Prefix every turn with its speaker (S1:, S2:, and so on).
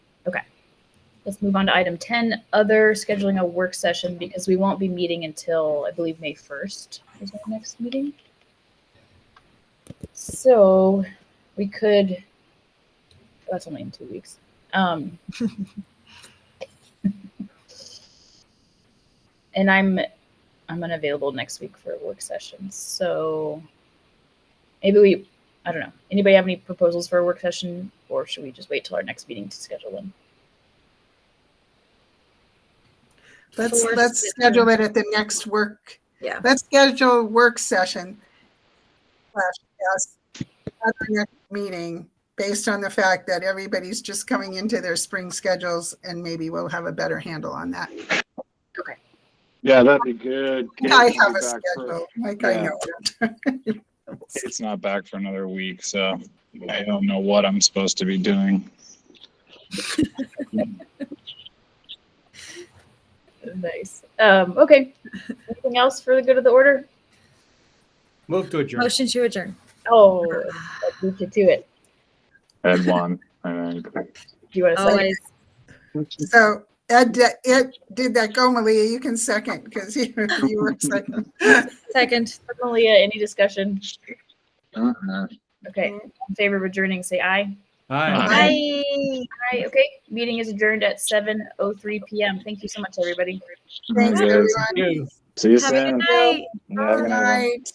S1: Let's move on to item ten, other scheduling a work session because we won't be meeting until, I believe, May first is our next meeting. So we could, oh, that's only in two weeks. Um, and I'm, I'm unavailable next week for a work session, so maybe we, I don't know. Anybody have any proposals for a work session or should we just wait till our next meeting to schedule one?
S2: Let's,
S3: Fourth
S2: let's
S3: is-
S2: schedule it at the next work.
S3: Yeah.
S2: Let's schedule a work session. slash, Yes, at the next meeting, based on the fact that everybody's just coming into their spring schedules and maybe we'll have a better handle on that.
S4: Yeah, that'd be good.
S2: I have a
S4: Back for-
S2: schedule, like I
S4: Yeah.
S2: know. it.
S4: It's not back for another week, so I don't know what I'm supposed to be doing.
S1: Nice. Um, okay. Anything else for the good of the order?
S5: Move to adjourn.
S3: Motion to adjourn.
S1: Oh, we should do it.
S4: Ed won, I think.
S1: Do you want to say?
S3: Always.
S2: So Ed, Ed did that go, Malia? You can second because you, you were second.
S3: Second.
S1: Malia, any discussion?
S4: Uh-uh.
S1: Okay. In favor of adjourning, say aye.
S5: Aye.
S3: Bye.
S1: Aye. Okay. Meeting is adjourned at 7.03 p.m. Thank you so much, everybody.
S2: Thanks,
S4: Yes.
S2: everyone.
S4: See you
S3: Have a
S4: soon.
S3: good night.
S4: Yeah,
S2: Good
S4: good night.
S2: night.